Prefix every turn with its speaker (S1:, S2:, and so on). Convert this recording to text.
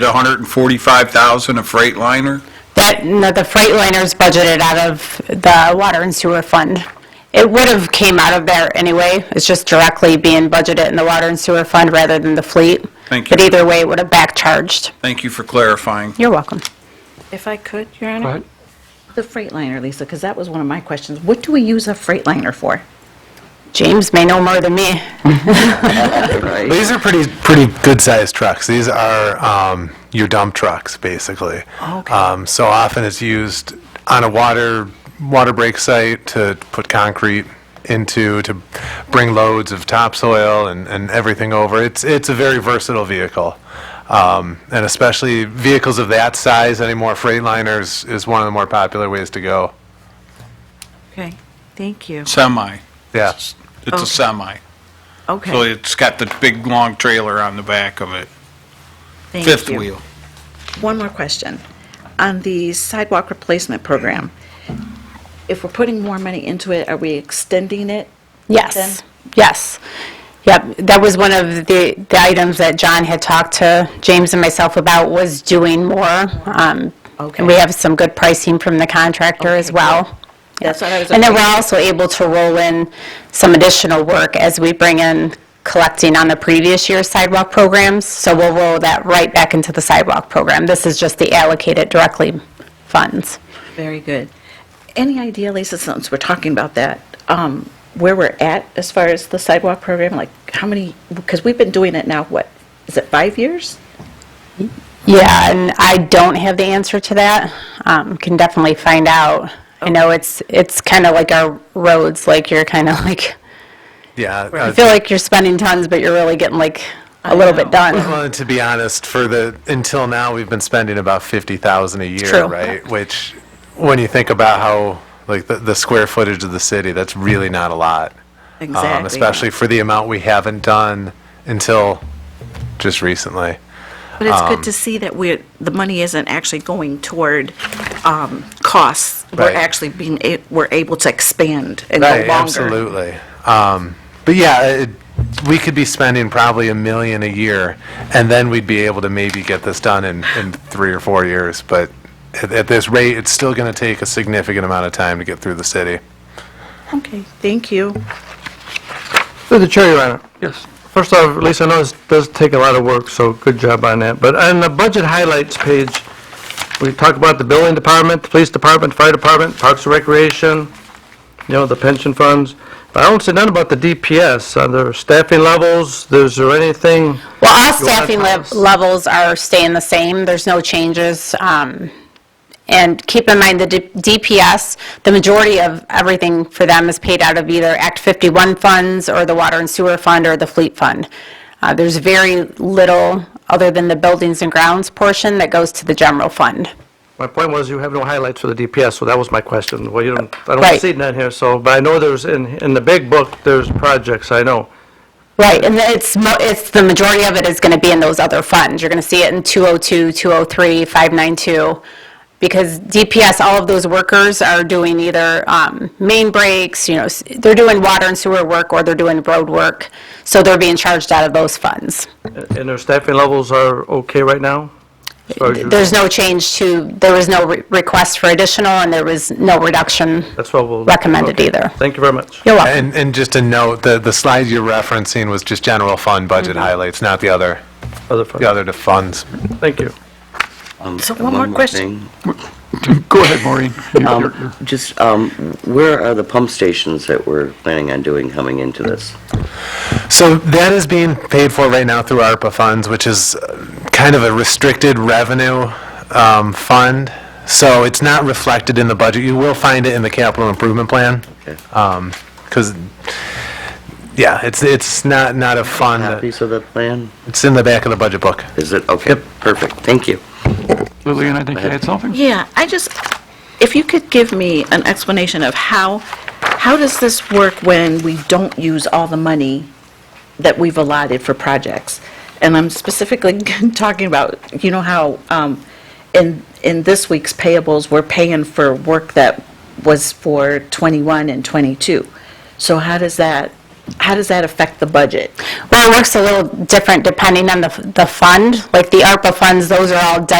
S1: budgeted 145,000 of Freightliner?
S2: That, no, the Freightliner's budgeted out of the water and sewer fund. It would have came out of there anyway, it's just directly being budgeted in the water and sewer fund rather than the fleet.
S1: Thank
S2: But
S1: you.
S2: either way, it would have back charged.
S1: Thank you for clarifying.
S2: You're welcome.
S3: If I could, Your
S4: Go
S3: Honor?
S4: ahead.
S5: The Freightliner, Lisa, because that was one of my questions. What do we use a Freightliner for?
S2: James may know more than me.
S4: These are pretty, pretty good-sized trucks. These are um, your dump trucks, basically.
S2: Oh,
S5: Okay.
S4: Um, So often it's used on a water, water break site to put concrete into, to bring loads of topsoil and, and everything over. It's, it's a very versatile vehicle. Um, And especially vehicles of that size anymore, Freightliners is one of the more popular ways to go.
S3: Okay, thank you.
S1: Semi.
S4: Yeah.
S1: It's
S3: Okay.
S1: a semi. So
S3: Okay,
S1: it's got the big, long trailer on the back of it.
S3: thank you.
S1: Fifth wheel.
S5: One more question. On the sidewalk replacement program, if we're putting more money into it, are we extending it?
S2: Yes, yes. Yep, that was one of the, the items that John had talked to James and myself about was doing more. um,
S5: Okay.
S2: And we have some good pricing from the contractor as
S5: Okay,
S2: well.
S5: That's what I was.
S2: And then we're also able to roll in some additional work as we bring in collecting on the previous year's sidewalk programs. So we'll roll that right back into the sidewalk program. This is just the allocated directly funds.
S5: Very good. Any idea, Lisa, since we're talking about that, um, where we're at as far as the sidewalk program? Like, how many, because we've been doing it now, what, is it five years?
S2: Yeah, and I don't have the answer to that. Um, Can definitely find out. I know it's, it's kind of like our roads, like you're kind of like,
S4: Yeah.
S2: I
S4: uh,
S2: feel like you're spending tons, but you're really getting like a little bit done.
S4: Well, to be honest, for the, until now, we've been spending about 50,000 a year,
S2: true.
S4: right? Which, when you think about how, like, the, the square footage of the city, that's really not a lot. Um,
S5: Exactly.
S4: Especially for the amount we haven't done until just recently.
S5: But it's good
S4: Um,
S5: to see that we're, the money isn't actually going toward um, costs. We're
S4: Right.
S5: actually being, a- we're able to expand and go
S4: Right,
S5: longer.
S4: absolutely. Um, But yeah, it- we could be spending probably a million a year, and then we'd be able to maybe get this done in, in three or four years. But at, at this rate, it's still going to take a significant amount of time to get through the city.
S5: Okay, thank you.
S6: Through the chair, Your Honor. Yes. First off, Lisa, I know this does take a lot of work, so good job on that. But on the budget highlights page, we talk about the building department, the police department, fire department, parks and recreation, you know, the pension funds. But I don't see none about the DPS, on their staffing levels, is there anything?
S2: Well, all
S6: You wanna
S2: staffing
S6: tell
S2: lev-
S6: us?
S2: levels are staying the same, there's no changes. um, And keep in mind, the D- DPS, the majority of everything for them is paid out of either Act 51 funds, or the Water and Sewer Fund, or the Fleet Fund. Uh, There's very little, other than the buildings and grounds portion, that goes to the general fund.
S6: My point was you have no highlights for the DPS, so that was my question. Well, you don't, I don't
S2: Right.
S6: see none here, so, but I know there's, in, in the big book, there's projects, I know.
S2: Right, and it's, mo- it's, the majority of it is going to be in those other funds. You're going to see it in 202, 203, 592, because DPS, all of those workers are doing either um, main breaks, you know, s- they're doing water and sewer work, or they're doing road work, so they're being charged out of those funds.
S6: And their staffing levels are okay right now? As far as you-
S2: There's no change to, there was no re- request for additional, and there was no reduction
S6: That's what we'll.
S2: recommended
S6: okay.
S2: either.
S6: Thank you very much.
S2: You're welcome.
S4: And, and just to note, the, the slide you're referencing was just general fund budget highlights, not the other,
S6: Other
S4: the
S6: fund.
S4: other to funds.
S6: Thank you.
S7: Um,
S3: So one more question.
S7: thing.
S8: Go ahead, Maureen. You-
S7: Um,
S8: you're- you're-
S7: Just, um, where are the pump stations that we're planning on doing coming into this?
S4: So that is being paid for right now through ARPA funds, which is uh, kind of a restricted revenue um, fund. So it's not reflected in the budget. You will find it in the capital improvement plan.
S8: Uh,
S4: Because, yeah, it's, it's not, not a fund. that-
S7: Copies of the plan?
S4: It's in the back of the budget book.
S7: Is it? Okay, perfect. Thank you.
S8: Lillian, I think you had something?
S5: Yeah, I just, if you could give me an explanation of how, how does this work when we don't use all the money that we've allotted for projects? And I'm specifically talking about, you know how um, in, in this week's payables, we're paying for work that was for '21 and '22. So how does that how does that affect the budget?
S2: Well, it works a little different depending on the, the fund. Like the ARPA funds, those are all designated